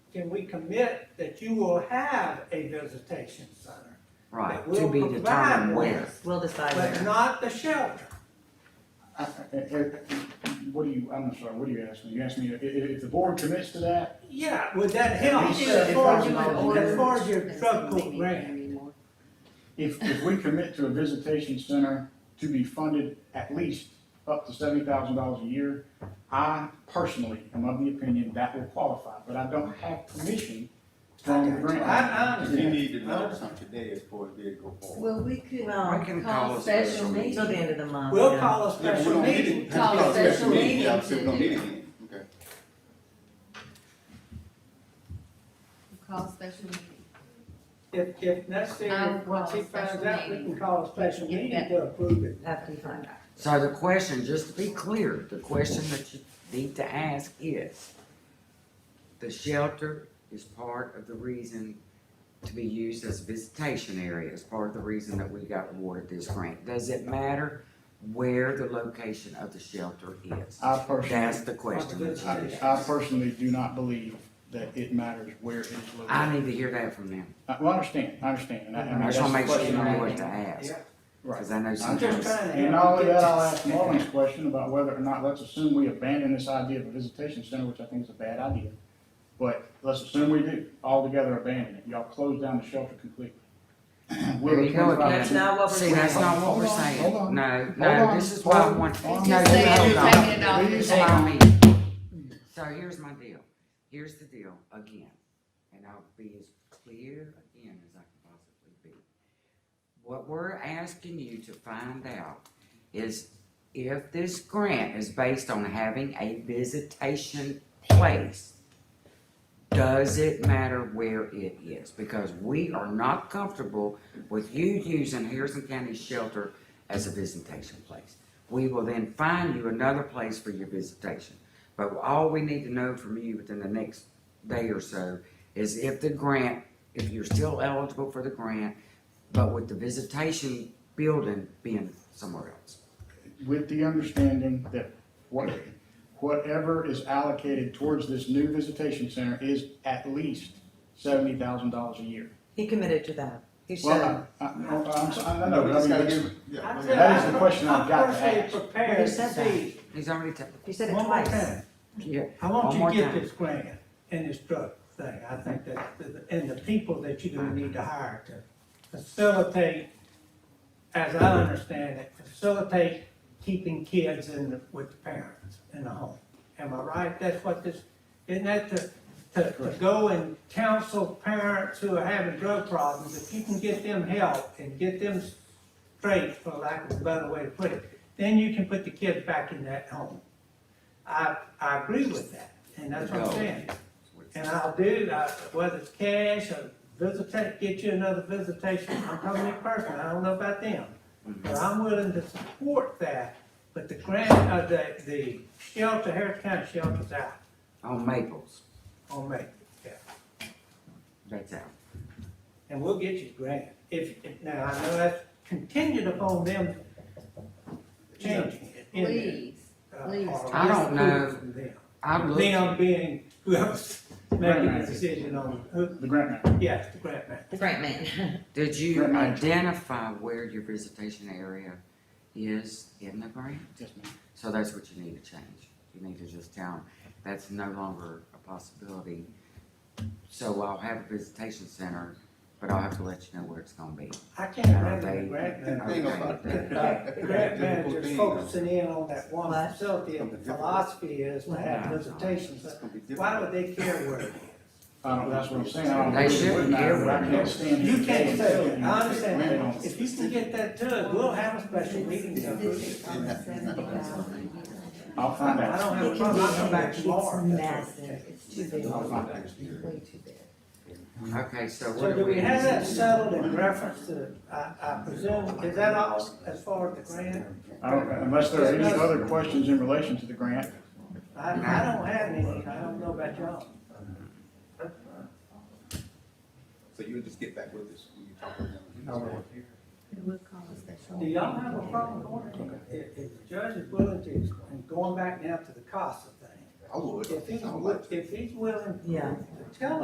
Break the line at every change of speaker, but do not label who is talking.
we commit that you will have a visitation center.
Right,
that
to
will
be
provide
determined when.
this,
We'll decide
But
where.
not the shelter.
I- I- I- What do you, I'm sorry, what are you asking? You asking me, if, if the board commits to that,
Yeah, would that
We
help
should
as far as,
probably
as far as your drug court grant?
if, if we commit to a visitation center to be funded at least up to seventy thousand dollars a year, I personally am of the opinion that will qualify, but I don't have permission from the grant.
I- I
writer.
You need to know something today is for it to go forward.
Well, we could
We can
um,
call
call
a
a
special
special
meeting.
Till the
meeting.
end of the month.
We'll
yeah.
call a
Yeah, but we
special
don't need
meeting.
it.
Call a
Yeah,
special
meeting.
meeting
Yeah, we don't
to
need
do
it again. Okay.
Call special meeting.
If, if
I will
necessary,
call
once he
a
finds
special
out, we
meeting.
can call a special
Get
meeting
that.
to approve it.
After you find out.
So the question, just to be clear, the question that you need to ask is, the shelter is part of the reason to be used as a visitation area, is part of the reason that we got awarded this grant. Does it matter where the location of the shelter is?
I personally,
That's the question that you need.
I, I personally do not believe that it matters where it is located.
I need to hear that from them.
I- Well, I understand, I understand, and I, and
I
that's
just
the
wanna make sure you
question
know
I'm
what to
asking.
ask,
Right.
cause I know
I'm just
sometimes.
trying to.
And
help
all of
you get
that, I'll
this.
ask Marlon's question about whether or not, let's assume we abandon this idea of a visitation center, which I think is a bad idea. But let's assume we do, altogether abandon it, y'all close down the shelter completely. We're
There you go again.
That's not what we're
See, that's
saying.
not what we're
Hold on,
saying.
hold on.
No,
Hold
no,
on,
this is why I
hold
want.
on.
no,
He's
you
saying
hold
you're
on.
taking it off the
Please
table.
allow me. So here's my deal. Here's the deal again, and I'll be as clear again as I can possibly be. What we're asking you to find out is if this grant is based on having a visitation place, does it matter where it is? Because we are not comfortable with you using Harrison County Shelter as a visitation place. We will then find you another place for your visitation. But all we need to know from you within the next day or so is if the grant, if you're still eligible for the grant, but with the visitation building being somewhere else.
With the understanding that what, whatever is allocated towards this new visitation center is at least seventy thousand dollars a year.
He committed to that. He should.
Well, uh, I, I, I'm, so- I don't know,
No, we
but I
just
mean,
gotta
that's-
give, yeah.
I
okay.
said
That is
I'm-
the question I've got to
I'm
ask.
personally prepared
He
to
said that.
see.
He's already taken,
He said it
One more
twice.
time,
yeah,
I
One
want you
more
to get
time.
this grant and this drug thing, I think that, and the people that you're gonna need to hire to facilitate, as I understand it, facilitate keeping kids in, the- with the parents in the home. Am I right? That's what this, isn't that to, to, to go and counsel parents who are having drug problems, if you can get them help and get them straight, for lack of a better way to put it, then you can put the kids back in that home. I, I agree with that, and that's what I'm
Go.
saying. And I'll do, I- whether it's cash or visitation, get you another visitation, I'm talking to you personally, I don't know about them. But I'm willing to support that, but the grant, uh, the, the shelter, Harris County shelter's out
on Maples,
on me.
that's out.
And we'll get you the grant, if, if- now, I know that's contingent upon them changing it in there.
Please.
uh,
please.
or
I don't know.
approval from them.
I looked,
Them being whoever's making the
Right.
decision on, who,
the grant matter.
yes, the grant man.
The grant man.
did you
Right, right.
identify where your visitation area is in the grant?
Yes, ma'am.
So that's what you need to change. You need to just tell them, that's no longer a possibility. So I'll have a visitation center, but I'll have to let you know where it's gonna be.
I can't imagine the grant
The
man.
thing about
The
that-
fact- the grant
difficult
manager's
thing,
focusing in on that one
What?
facility, and the philosophy is to have visitations,
It's gonna be difficult.
why would they care where it
I don't, that's what I'm saying, I don't
They
think it would
shouldn't
matter,
care
but I
what it
can't
is.
stand.
is?
here
You can't
and
say,
tell you
I
we
understand
don't.
that, if you can get that to us, we'll have a special meeting. to approve it.
I'll find
I
out.
don't have a problem, I'll come back tomorrow.
It's massive, it's too big,
I'll find out.
way too big.
Okay, so
So do
what do
we have that
we?
settled in reference to, I, I presume, is that all as far as the grant?
I don't, unless there are any other questions in relation to the grant,
I, I don't have anything, I don't know about y'all.
So you'll just get back with us when you talk to them.
I will.
We'll call a special.
Do y'all have a problem going, if, if the judge is willing to, and going back now to the CASA thing,
I would.
if he's,
I would like
wi- if he's willing
Yeah.
to tell